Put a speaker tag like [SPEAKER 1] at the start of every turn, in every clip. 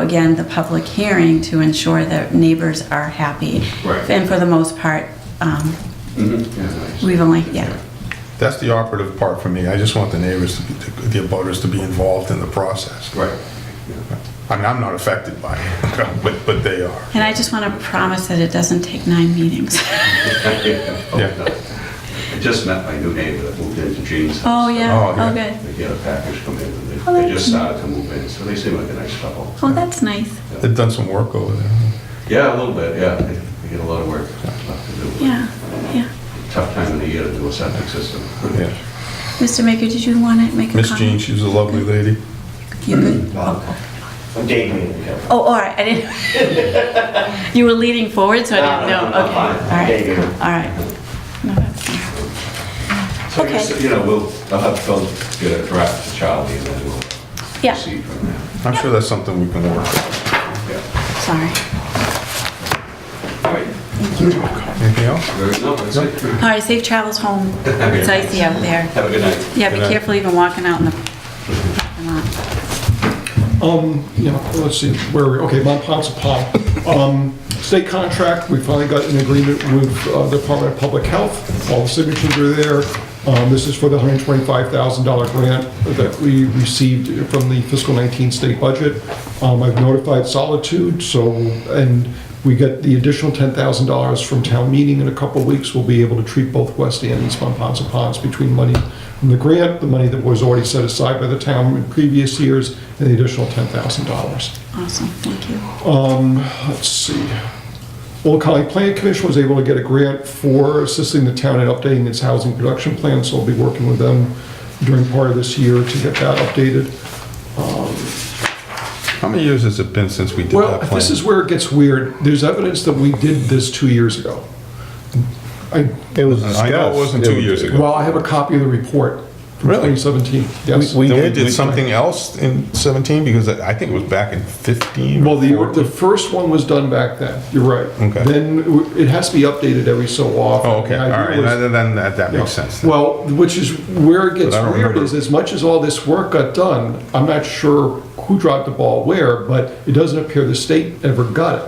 [SPEAKER 1] again, the public hearing to ensure that neighbors are happy.
[SPEAKER 2] Right.
[SPEAKER 1] And for the most part, um,
[SPEAKER 2] Mhm.
[SPEAKER 1] we've only, yeah.
[SPEAKER 3] That's the operative part for me. I just want the neighbors, to be- to- the abutters to be involved in the process.
[SPEAKER 2] Right.
[SPEAKER 3] I mean, I'm not affected by it, but, but they are.
[SPEAKER 1] And I just want to promise that it doesn't take nine meetings.
[SPEAKER 2] I just met my new neighbor that moved into Jean's
[SPEAKER 1] Oh,
[SPEAKER 2] house.
[SPEAKER 1] yeah,
[SPEAKER 3] Oh, yeah.
[SPEAKER 1] oh, good.
[SPEAKER 2] They get a package come in, and
[SPEAKER 1] Oh,
[SPEAKER 2] they- they
[SPEAKER 1] that's
[SPEAKER 2] just started to move in, so they seem like a nice couple.
[SPEAKER 1] Oh, that's nice,
[SPEAKER 3] They've done some work over there.
[SPEAKER 2] Yeah, a little bit, yeah, they they get a lot of work left to do.
[SPEAKER 1] yeah, yeah.
[SPEAKER 2] Tough time of the year to do a septic system.
[SPEAKER 3] Yeah.
[SPEAKER 1] Mr. Maker, did you want to make a comment?
[SPEAKER 3] Miss Jean, she was a lovely lady.
[SPEAKER 1] You good?
[SPEAKER 4] Mm-hmm. I'm dating you.
[SPEAKER 1] Oh, all right, I didn't, you were leaning forward, so I
[SPEAKER 4] No,
[SPEAKER 1] didn't
[SPEAKER 4] no,
[SPEAKER 1] know,
[SPEAKER 4] no,
[SPEAKER 1] okay.
[SPEAKER 4] I'm fine. There you go.
[SPEAKER 1] All right, all right. No, that's fine.
[SPEAKER 2] So I guess,
[SPEAKER 1] Okay.
[SPEAKER 2] you know, we'll, I'll have Phil get a draft to Charlie and then we'll
[SPEAKER 1] Yeah,
[SPEAKER 2] proceed from there.
[SPEAKER 3] I'm sure that's something we can work.
[SPEAKER 2] Yeah.
[SPEAKER 1] sorry.
[SPEAKER 2] All right.
[SPEAKER 3] Anything else?
[SPEAKER 2] Very- no, that's it.
[SPEAKER 1] All right, safe travels home. It's icy out there.
[SPEAKER 2] Have a good night.
[SPEAKER 1] Yeah, be
[SPEAKER 3] Good night.
[SPEAKER 1] careful even walking out in the parking lot.
[SPEAKER 5] Um, yeah, let's see, where are we? Okay, Mont Pond. Um, state contract, we finally got an agreement with uh, the Department of Public Health. All the signatures are there. Um, this is for the hundred twenty-five thousand dollar grant that we received from the fiscal nineteen state budget. Um, I've notified Solitude, so, and we get the additional ten thousand dollars from town meeting in a couple of weeks. We'll be able to treat both West and East Mont Ponce Ponds between money from the grant, the money that was already set aside by the town in previous years, and the additional $10,000.
[SPEAKER 1] Awesome, thank you.
[SPEAKER 5] Let's see. Old Colony Planning Commission was able to get a grant for assisting the town in updating its housing production plan, so I'll be working with them during part of this year to get that updated.
[SPEAKER 3] How many years has it been since we did
[SPEAKER 5] Well,
[SPEAKER 3] that plan?
[SPEAKER 5] this is where it gets weird. There's evidence that we did this two years ago. I,
[SPEAKER 6] It was
[SPEAKER 3] I know it wasn't
[SPEAKER 6] discussed.
[SPEAKER 3] two years ago.
[SPEAKER 5] well, I have a copy of the report from
[SPEAKER 3] Really?
[SPEAKER 5] 2017. Yes.
[SPEAKER 6] We
[SPEAKER 3] Then we
[SPEAKER 6] did-
[SPEAKER 3] did
[SPEAKER 6] we-
[SPEAKER 3] something else in 17, because I I think it was back in 15
[SPEAKER 5] Well,
[SPEAKER 3] or
[SPEAKER 5] the, the
[SPEAKER 3] 14.
[SPEAKER 5] first one was done back then, you're right.
[SPEAKER 3] Okay.
[SPEAKER 5] Then w- it has to be updated every so often.
[SPEAKER 3] Oh, okay,
[SPEAKER 5] The
[SPEAKER 3] all right,
[SPEAKER 5] idea was-
[SPEAKER 3] then then that that makes
[SPEAKER 5] Yeah.
[SPEAKER 3] sense. then.
[SPEAKER 5] Well, which is where it gets
[SPEAKER 3] But I don't
[SPEAKER 5] weird
[SPEAKER 3] remember.
[SPEAKER 5] is as much as all this work got done, I'm not sure who dropped the ball where, but it doesn't appear the state ever got it.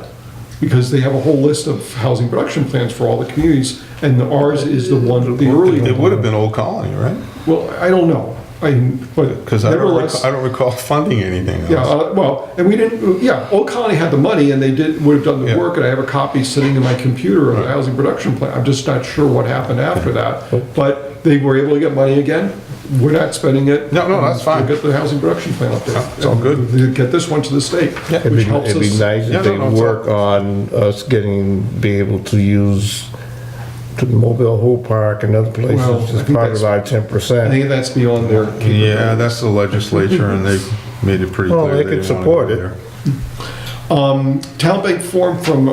[SPEAKER 5] Because they have a whole list of housing production plans for all the communities, and ours is the one, the early one.
[SPEAKER 3] It would have been Old Colony, right?
[SPEAKER 5] Well, I don't know, I, but
[SPEAKER 3] Because I don't
[SPEAKER 5] nevertheless.
[SPEAKER 3] recall- I don't recall funding anything else.
[SPEAKER 5] Yeah, uh, well, and we didn't, yeah, Old Colony had the money and they did, would have done the
[SPEAKER 3] Yeah.
[SPEAKER 5] work, and I have a copy sitting in my computer of the housing production plan. I'm just not sure what happened after that, but they were able to get money again. We're not spending it.
[SPEAKER 3] No, no, that's fine.
[SPEAKER 5] We'll get the housing production plan up there.
[SPEAKER 3] It's all good.
[SPEAKER 5] Get this one to the state,
[SPEAKER 6] It'd be,
[SPEAKER 5] which helps
[SPEAKER 6] it'd be
[SPEAKER 5] us.
[SPEAKER 6] nice
[SPEAKER 3] Yeah,
[SPEAKER 6] if
[SPEAKER 3] no,
[SPEAKER 6] they
[SPEAKER 3] no, it's
[SPEAKER 6] work on us getting, be able to use the Mobile Home Park and other
[SPEAKER 5] Well,
[SPEAKER 6] places
[SPEAKER 5] I
[SPEAKER 6] as
[SPEAKER 5] think
[SPEAKER 6] part of
[SPEAKER 5] that's-
[SPEAKER 6] our ten
[SPEAKER 5] I
[SPEAKER 6] percent.
[SPEAKER 5] think that's beyond their
[SPEAKER 3] Yeah, that's the legislature, and they made it pretty
[SPEAKER 6] Well,
[SPEAKER 3] clear.
[SPEAKER 6] they could
[SPEAKER 3] didn't wanna
[SPEAKER 6] support
[SPEAKER 3] go
[SPEAKER 6] it.
[SPEAKER 3] there.
[SPEAKER 5] Town Bank form from uh,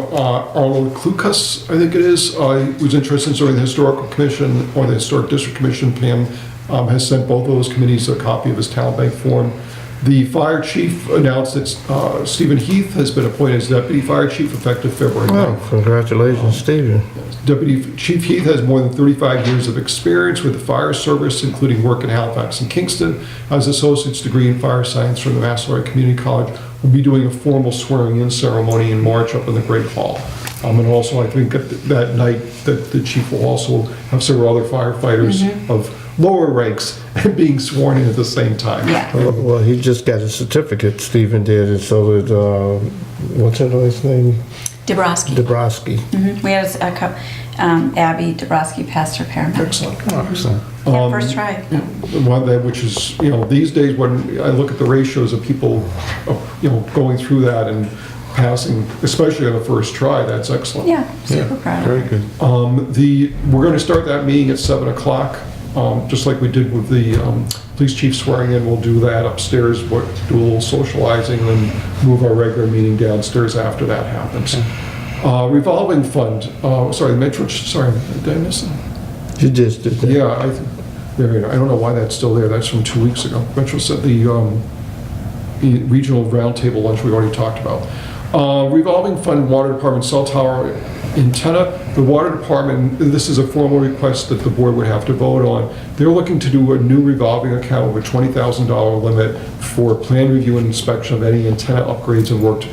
[SPEAKER 5] Arnold Klukas, I think it is, uh, who's interested in serving the Historical Commission or the Historic District Commission. Pam um, has sent both of those committees a copy of his Town Bank form. The fire chief announced that uh, Stephen Heath has been appointed as deputy fire chief effective February 9th.
[SPEAKER 6] Well, congratulations, Stephen.
[SPEAKER 5] Deputy Chief Heath has more than 35 years of experience with the fire service, including work in Halifax and Kingston. Has associate's degree in fire science from the Massasoit Community College. Will be doing a formal swearing-in ceremony in March up in the Great Hall. Um, And also, I think that that night, that the chief will also have several other firefighters of lower ranks being sworn in at the same time.
[SPEAKER 1] Yeah.
[SPEAKER 6] Well, well, he just got his certificate, Stephen did, and so did, uh, what's that guy's name?
[SPEAKER 1] Dabrowski.
[SPEAKER 6] Dabrowski.
[SPEAKER 1] Mhm. We had a cou- um, Abby Dabrowski passed her paramedic.
[SPEAKER 5] Excellent.
[SPEAKER 3] Oh, Excellent.
[SPEAKER 1] Yeah, first try.
[SPEAKER 5] one that, which is, you know, these days when I look at the ratios of people, uh, you know, going through that and passing, especially on the first try, that's excellent.
[SPEAKER 1] Yeah,
[SPEAKER 3] Yeah,
[SPEAKER 1] super proud of
[SPEAKER 3] Very
[SPEAKER 1] her.
[SPEAKER 3] good.
[SPEAKER 5] Um, The, we're going to start that meeting at 7 o'clock, um, just like we did with the um, police chief swearing in. We'll do that upstairs, we'll do a little socializing, and move our regular meeting downstairs after that happens. Uh, Revolving fund, uh, sorry, Metro, sorry, did I miss that?
[SPEAKER 6] You just did that.
[SPEAKER 5] Yeah, I, th- there, you go. I don't know why that's still there, that's from two weeks ago. Metro said the, um, the regional roundtable lunch we already talked about. Uh, revolving fund, water department, cell tower antenna. The water department, this is a formal request that the board would have to vote on. They're looking to do a new revolving account with a $20,000 limit for plan review and inspection of any antenna upgrades and work to be